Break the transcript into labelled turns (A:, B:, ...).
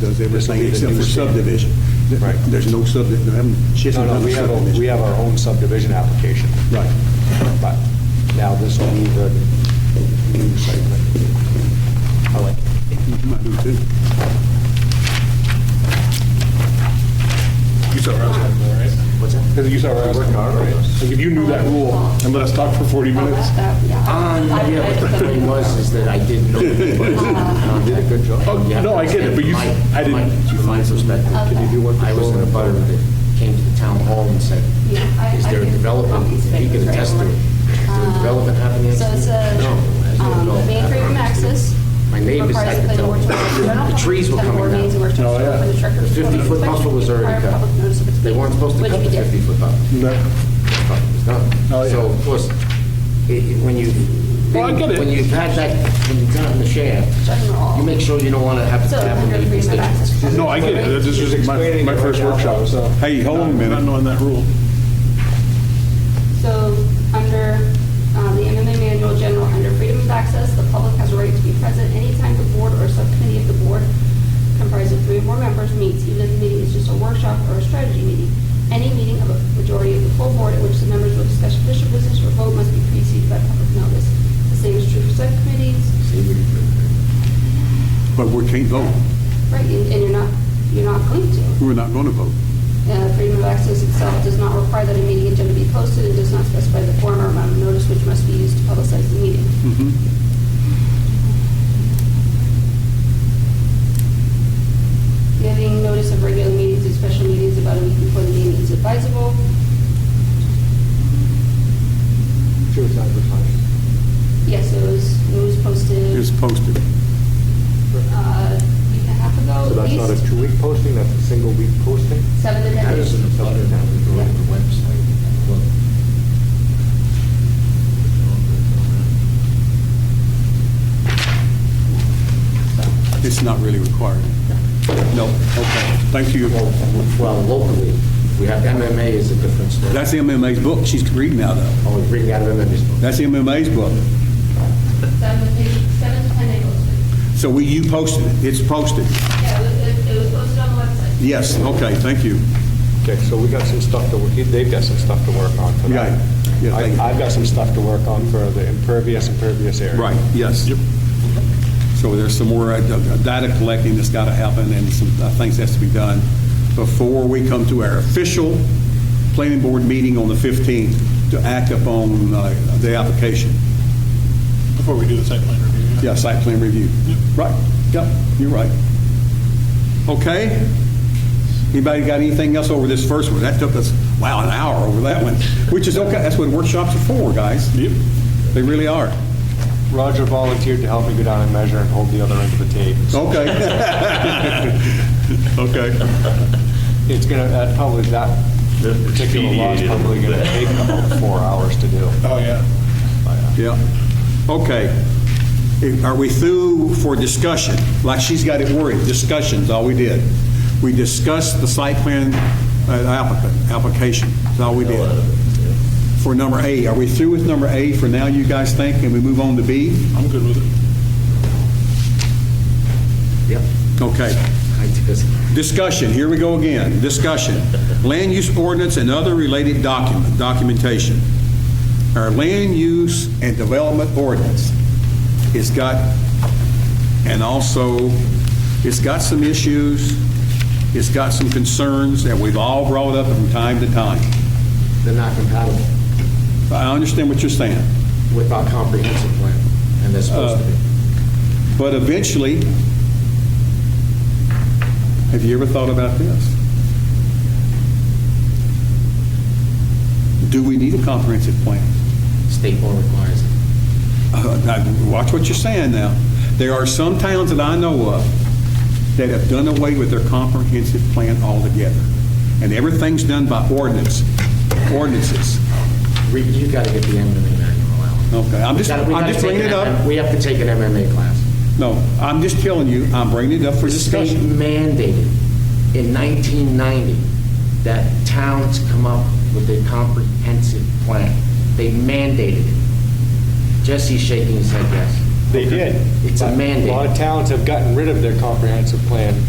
A: does everything.
B: Except for subdivision.
C: Right.
A: There's no subdivision, she hasn't
C: No,
A: done
C: no,
A: a
C: we have, a-
A: subdivision.
C: we have our own subdivision application,
A: Right.
C: but now this will be the new site. plan. I like it.
A: You might do too.
D: You saw where I was going, right? What's that? You saw where I was going, right? Like, if you knew that rule and let us talk for 40 minutes,
E: Um, yeah, but the thing was, is that I didn't know. You Uh, did a good job.
D: Oh, no, I get it, but you- I didn't-
E: You find perspective.
F: Can
E: do
F: you
D: what
E: I was in a butter that came to the town hall and said,
F: Yeah, I-
E: is
F: I
E: there a
F: can-
E: development,
F: copies,
E: he could
F: papers,
E: attest to it.
F: right?
E: Is there a development happening?
F: Uh, So it's a,
E: No.
F: um, main freedom access.
E: My neighbors, I
F: Requires
E: could
F: a
E: tell.
F: planning board to-
E: The trees were
F: Planning board
E: coming
F: needs
E: down.
F: a workshop
D: Oh, yeah.
F: for the trigger.
E: The 50-foot buffer was already
F: Require
E: cut.
F: public notice of its
E: They weren't
F: meeting,
E: supposed to
F: which
E: cut
F: we
E: the
F: did.
E: 50-foot buffer. But it was done.
D: Oh, yeah.
E: So of course, i- i- when you,
D: Well, I get it.
E: when you've had that, when you've gotten the shaft,
F: General.
E: you make sure you don't want to have it
F: So
E: happen to
F: under
E: your
F: freedom of
E: constituents.
F: access.
D: no, I get it, That- this was my, my first workshop, so.
B: Hey, hold on a minute.
D: Not knowing that rule.
F: So under uh, the MMA manual general, under freedom of access, the public has a right to be present anytime the board or subcommittee of the board comprised of three or more members meets, even if the meeting is just a workshop or a strategy meeting. Any meeting of a majority of the full board at which the members will discuss official business or vote must be preceded by public notice. The same is true for subcommittees,
A: But we can't vote.
F: right, and and you're not, you're not going to.
A: We're not going to vote.
F: Uh, Freedom of access itself does not require that a meeting agenda be posted and does not specify the form or amount of notice which must be used to publicize the meeting.
D: Mm-hmm.
F: Giving notice of regular meetings and special meetings about a week before the meeting is advisable.
C: Sure, it's advertised.
F: Yes, it was, it was
A: It's
F: posted,
A: posted.
F: uh, a week and a half
C: So
F: ago at
C: that's not a
F: least,
C: two-week posting, that's a single-week posting?
F: seven to ten
E: That
F: days.
E: is an abutter that we go to the website and look.
A: It's not really required. No, okay. Thank you.
E: Well, locally, we have MMA is a different story.
A: That's MMA's book she's reading now, though.
E: Oh, we bring out MMA's book.
A: That's MMA's book.
F: Seven to ten, seven to ten day posting.
A: So we, you posted it. It's posted.
F: Yeah, it was, it was posted on the website.
A: Yes, okay, thank you.
C: Okay, so we got some stuff to, work. they've got some stuff to work on for that.
A: Right. Yeah,
C: I-
A: thank you.
C: I've got some stuff to work on for the impervious, impervious area.
A: Right, yes. So there's some more uh, data collecting that's got to happen and some uh, things has to be done before we come to our official planning board meeting on the 15th to act upon uh, the application.
D: Before we do the site plan review.
A: Yeah, site plan review. Right, yep, you're right. Okay? Anybody got anything else over this first one? That took us, wow, an hour over that one, which is okay. That's what workshops are for, guys.
D: Yep.
A: They really are.
C: Roger volunteered to help me go down and measure and hold the other end of the tape. So
A: Okay. Okay.
C: It's gonna, that probably, that particular lot's probably gonna take about four hours to do. uh,
D: Oh, yeah.
A: Yeah. Okay. If- Are we through for discussion? Like she's got it worried, discussions, all we did. We discussed the site plan uh, applicant, application, that's all we did. For number A, are we through with number A for now, you guys think, and we move on to B?
D: I'm good with it.
E: Yep.
A: Okay.
E: I just-
A: Discussion, here we go again, discussion. Land use ordinance and other related document, documentation. Our land use and development ordinance has got, and also, it's got some issues, it's got some concerns that we've all brought up from time to time.
E: They're not compatible
A: I understand what you're saying,
E: with our comprehensive plan, and they're supposed to be.
A: Uh. but eventually, have you ever thought about this? Do we need a comprehensive plan?
E: State law requires it.
A: Uh, now, Watch what you're saying now. There are some towns that I know of that have done away with their comprehensive plan altogether, and everything's done by ordinance, ordinances.
E: We- You've got to get the MMA manual out.
A: Okay, I'm
E: We
A: just,
E: gotta- we
A: I'm
E: gotta
A: just
E: take
A: bringing
E: an
A: it
E: MM
A: up.
E: We have to take an MMA class.
A: No, I'm just telling you, I'm bringing it up for
E: The state
A: discussion.
E: mandated in 1990 that towns come up with a comprehensive plan. They mandated it. Jesse's shaking his head yes.
C: They did.
E: It's a
C: But
E: mandate.
C: A lot of towns have gotten rid of their comprehensive plan